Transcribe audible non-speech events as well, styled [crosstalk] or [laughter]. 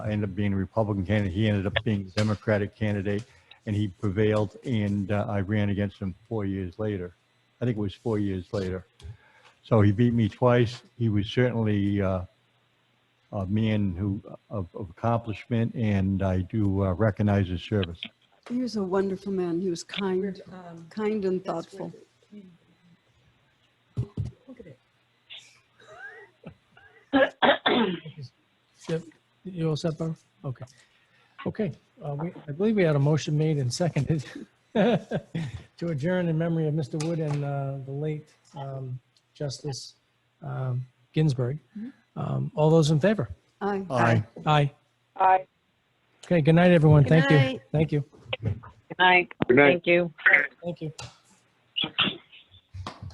I ended up being a Republican candidate. He ended up being a Democratic candidate, and he prevailed, and uh, I ran against him four years later. I think it was four years later. So he beat me twice. He was certainly uh, a man who of, of accomplishment, and I do uh, recognize his service. He was a wonderful man. He was kind, Um, kind and that's thoughtful. where the community- Look at it. Yep. You all set, Barbara? Okay. Okay, uh, we, I believe we had a motion made and seconded [laughs] to adjourn in memory of Mr. Wood and uh, the late um, Justice um, Ginsburg. Mm-hmm. Um, All those in favor? Aye. Aye. Aye. Aye. Okay, good night, everyone. Good Thank you. night. Thank you. Good night. Good night. Thank you. Thank you.